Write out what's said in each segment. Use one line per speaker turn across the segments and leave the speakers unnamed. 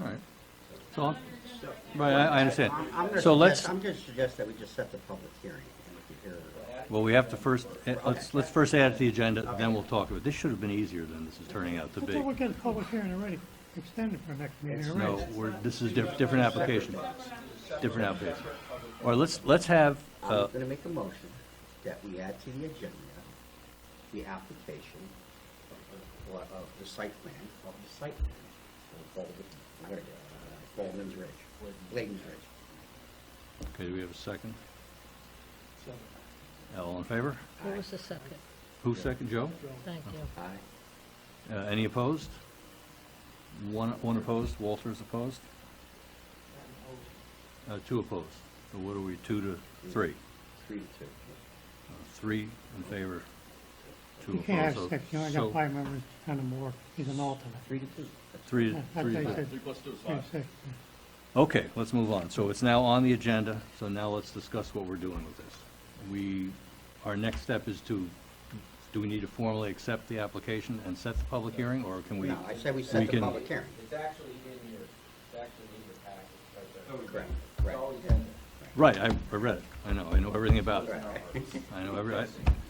All right.
So, I'm- right, I, I understand.
I'm- I'm gonna
So let's,
suggest- I'm gonna suggest that we just set the public hearing, and we can hear it.
well, we have to first, eh, let's, let's first add it to the agenda, then we'll talk about it. This should have been easier than this is turning out to
I
be.
thought we got a public hearing already, extended for next meeting
No,
already.
we're, this is diff- different application, different application. All right, let's, let's have, uh,
I'm gonna make a motion that we add to the agenda the application of- of, of the site plan, of the site plan for Baldwin, uh, Baldwin's Ridge, Layton's Ridge.
okay, do we have a second? All in favor?
Who was the second?
Who second, Joe?
Thank you.
Aye.
Uh, any opposed? One, one opposed, Walter's opposed? Uh, two opposed. So what are we, two to three?
three to two.
Uh, Three in favor, two
You
opposed.
can't have
So-
six, you only
so
got five members and a more, he's an alternate.
Three to two.
Three,
That's what
three.
they
to-
said. Yeah, six.
Okay, let's move on. So it's now on the agenda, so now let's discuss what we're doing with this. We, our next step is to, do we need to formally accept the application and set the public hearing, or can we?
No, I said we
we
set the
can-
public hearing.
It's actually in your, it's actually in your package, right there.
Correct,
It's
right,
always in there.
Right, I I read it. I know, I know everything about it.
right.
I know every, I-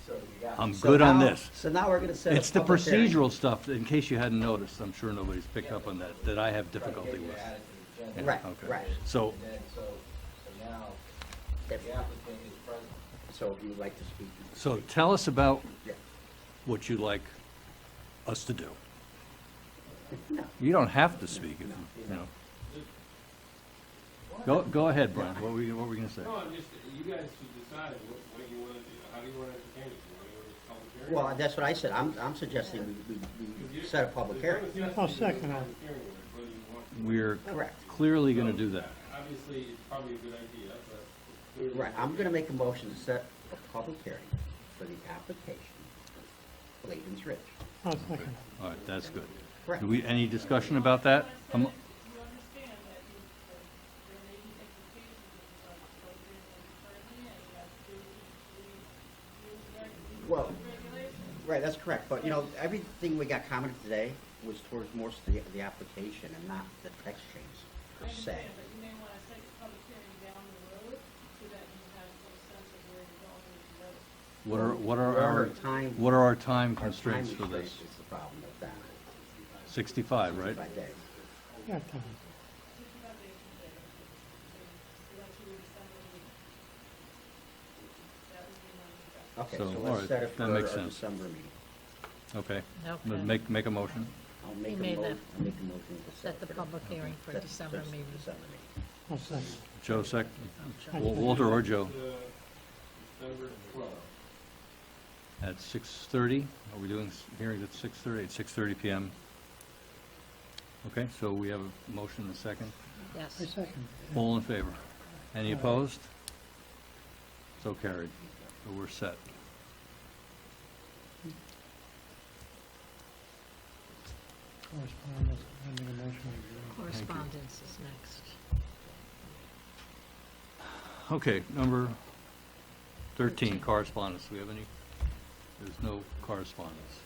So you got
I'm
So
good on
now-
this.
So now we're gonna set a
It's the
public hearing.
procedural stuff, in case you hadn't noticed, I'm sure nobody's picked up on that, that I have difficulty with.
added to the agenda,
Yeah,
Right,
okay.
right.
So,
and then, so, so now, the
If-
applicant is present.
So if you'd like to speak. you can
so
speak.
tell us about
Yeah.
what you'd like us to do.
No.
You don't have to speak, if you you know. Go, go ahead, Brian, what were you, what were you gonna say?
No, I'm just, you guys should decide what, what you wanna do, how do you wanna entertain it, you wanna go to public hearing?
Well, that's what I said, I'm, I'm suggesting we, we, we set a public hearing.
I'll second that.
Whether you want,
We're
Correct.
clearly gonna do that.
obviously, it's probably a good idea, but. clearly-
Right, I'm gonna make a motion to set a public hearing for the application of Layton's Ridge.
I'll second
All right, that's good.
Correct.
Do we, any discussion about that? Um,
You understand that you, that there may be implications of the budget, so you're currently, and you have to, you, you,
Well,
regulations.
right, that's correct, but you know, everything we got commented today was towards more the, the application and not the text
I
change per se.
understand, but you may wanna take the public hearing down the road, so that you have some sense of where you're going with the road.
What are, what are
Well,
our,
our time-
what are our time
Our time
constraints for this?
restraint Is the problem with that,
Sixty-five, right?
by day.
it. Yeah, Tom.
Okay,
So,
so
all
let's
right,
set it
that
for our
makes sense.
December meeting.
Okay.
Okay.
Make, make a motion.
I'll make a
made
mo,
that-
I'll make a motion to set.
Set the public hearing for
set-
December
set-
meeting.
December meeting.
I'll second.
Joe sec, Wal- Walter or Joe
Uh, December twelfth.
at six thirty. Are we doing s- hearings at six thirty, at six thirty PM? Okay, so we have a motion and a second.
I
Yes.
second.
All in favor? Any opposed? So carried. So we're set.
Correspondence, pending a motion.
Correspondence is next.
Okay, number thirteen, correspondence. Do we have any? There's no correspondence.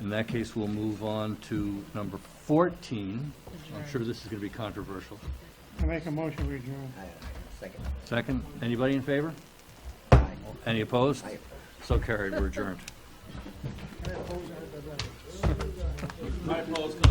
In that case, we'll move on to number fourteen. I'm sure this is gonna be controversial.
I make a motion, we adjourn.
I, second.
Second, anybody in favor?
Aye.
Any opposed?
Aye.
So carried, we're adjourned.
My applause comes